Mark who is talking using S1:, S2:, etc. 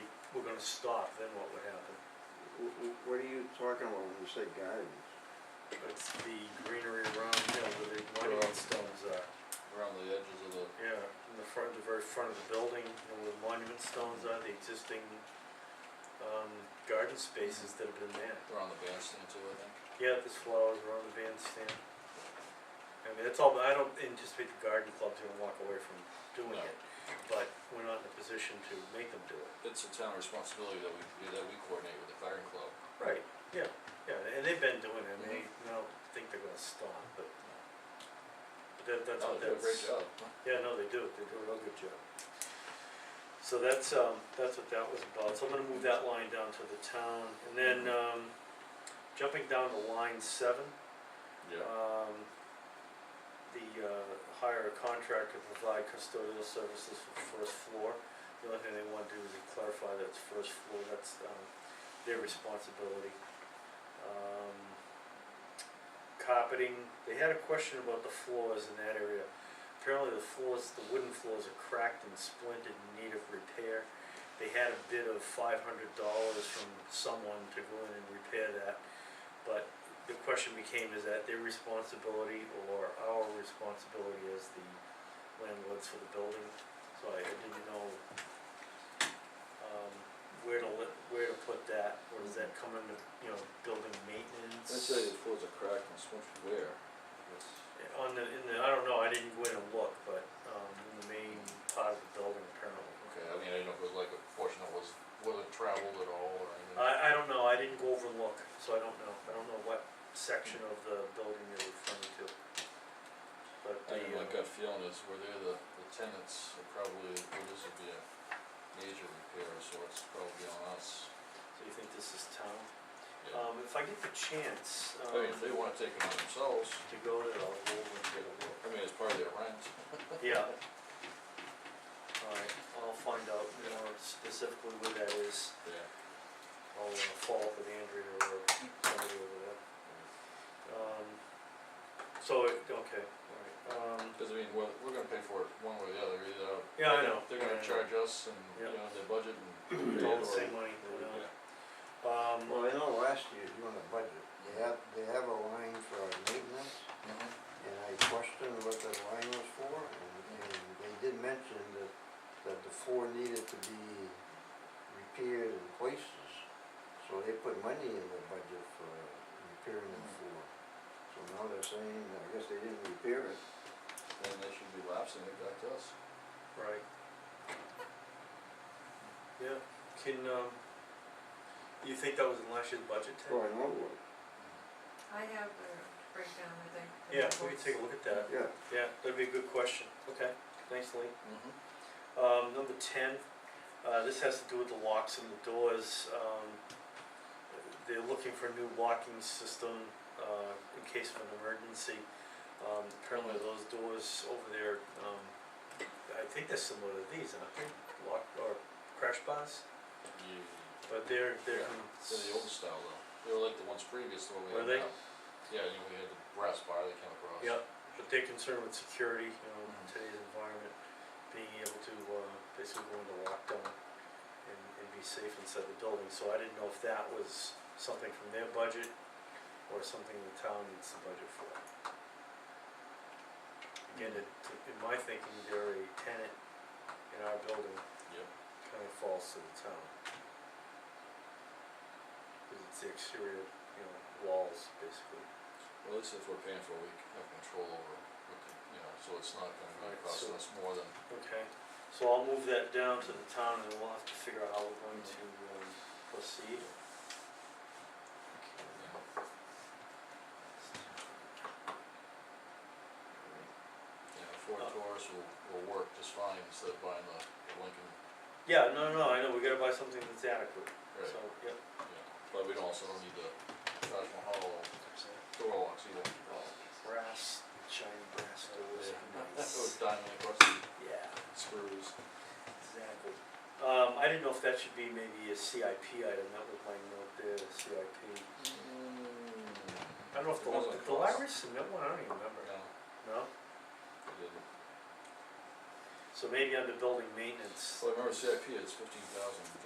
S1: gonna stop, then what would happen?
S2: W- w- What are you talking about when you say gardens?
S1: It's the greenery around, you know, where the monument stones are.
S3: around the edges of the,
S1: Yeah, in the front, the very front of the building, you know, where the monument stones are, the existing, um, garden spaces that have been there.
S3: around the bandstand too, I think.
S1: Yeah, there's flowers around the bandstand. I mean, it's all, I don't anticipate the garden club's gonna walk away from doing
S3: No.
S1: it, but we're not in a position to make them do it.
S3: It's a town responsibility that we, that we coordinate with the garden club.
S1: Right. Yeah, yeah, and they've been doing it, and they,
S3: Mm-hmm.
S1: I don't think they're gonna stop, but, but that, that's
S3: No,
S1: what
S3: Oh, they do a
S1: that's.
S3: great job.
S1: Yeah, no, they do, they do a real good job. So that's, um, that's what that was about, so I'm gonna move that line down to the town, and then,
S3: Mm-hmm.
S1: um, jumping down to line seven, um, the, uh, hire a contractor to provide custodial services for first floor. The only thing they wanna do is to clarify that's first floor, that's, um, their responsibility. Um, carpeting, they had a question about the floors in that area. Apparently the floors, the wooden floors are cracked and splintered in need of repair. They had a bid of five hundred dollars from someone to go in and repair that. But the question became, is that their responsibility or our responsibility as the landlords for the building? So I I didn't know, um, where to li- where to put that, or does that come into, you know, building maintenance?
S3: Let's say the floors are cracked and smushed where?
S1: On the, in the, I don't know, I didn't go in and look, but, um, in the main part of the building apparently.
S3: Okay, I mean, I didn't know if it was like a portion that was, wasn't traveled at all or anything.
S1: I, I don't know, I didn't go over and look, so I don't know, I don't know what section of the building you're referring to. But the,
S3: I mean,
S1: uh,
S3: my gut feeling is where they're the, the tenants, are probably, well, this would be a major repair of sorts, probably on us.
S1: so you think this is town?
S3: Yeah.
S1: Um, if I get the chance,
S3: I
S1: um,
S3: mean, if
S1: to
S3: they wanna take it on themselves,
S1: go there, I'll go over and get a look.
S3: I mean, it's part of their rent.
S1: Yeah. Alright, I'll find out more specifically where that is,
S3: Yeah.
S1: I'll uh, follow up with Andrea or somebody over there. Um, so, it- okay, alright, um,
S3: Cause I mean, we're, we're gonna pay for it one way or the other, either.
S1: Yeah, I
S3: they're-
S1: know.
S3: They're
S1: Yeah, I
S3: gonna
S1: know.
S3: charge us and,
S1: Yeah.
S3: you know, their budget and.
S1: they
S3: all
S1: have the
S3: the-
S1: same money, you know.
S3: Yeah.
S1: Um,
S2: Well, I know last year doing the budget, they have, they have a line for maintenance,
S3: Mhm.
S2: and I questioned what that line was for, and, and they did mention that, that the floor needed to be repaired in places. So they put money in the budget for repairing the floor. So now they're saying, I guess they didn't repair it.
S3: Then they should be lapsing it back to us.
S1: Right. Yeah, can, um, you think that was in last year's budget, Ted?
S2: Oh, I know it was,
S4: I have a breakdown, I think. of
S1: Yeah,
S4: the
S1: we can take a look at that,
S2: yeah.
S1: yeah, that'd be a good question, okay, thanks Lee.
S3: Mhm.
S1: Um, number ten, uh, this has to do with the locks and the doors, um, they're looking for a new locking system, uh, in case of an emergency. Um, apparently those doors over there, um, I think they're similar to these, aren't they, lock, or crash bars?
S3: Yeah.
S1: But they're, they're,
S3: Yeah, They're the old style though, they were like the ones previous to what we
S1: Were
S3: have
S1: they?
S3: now. Yeah, you know, we had the brass bar that came across.
S1: yeah, but they're concerned with security, you know, in
S3: Mhm.
S1: today's environment, being able to, uh, basically go into lockdown and, and be safe inside the building, so I didn't know if that was something from their budget or something the town needs to budget for.
S3: Mm-hmm.
S1: Again, it, in my thinking, they're a tenant in our building,
S3: Yep.
S1: kind of falls to the town. Cause it's the exterior, you know, walls, basically.
S3: Well, at least if we're paying for it, we have control over, what the- you know, so it's not gonna be
S1: Right,
S3: costing
S1: so-
S3: us more than,
S1: Okay, so I'll move that down to the town and we'll have to figure out how we're going to um, proceed.
S3: you know. you know, Ford
S1: Uh,
S3: Taurus will, will work just fine instead of buying the the Lincoln,
S1: Yeah, no, no, I know, we gotta buy something that's adequate,
S3: right,
S1: so, yep.
S3: yeah, but we don't also don't need the Taj Mahal door locks either.
S1: Brass, shiny brass doors,
S3: Those
S1: nice,
S3: diamond rusty
S1: yeah,
S3: screws.
S1: exactly. Um, I didn't know if that should be maybe a CIP item, that was my note there, CIP. I don't know if the,
S3: Depends on
S1: did the
S3: cost.
S1: library submit one, I don't even remember,
S3: No,
S1: no?
S3: it didn't.
S1: So maybe under building maintenance,
S3: Well, I remember CIP is fifteen thousand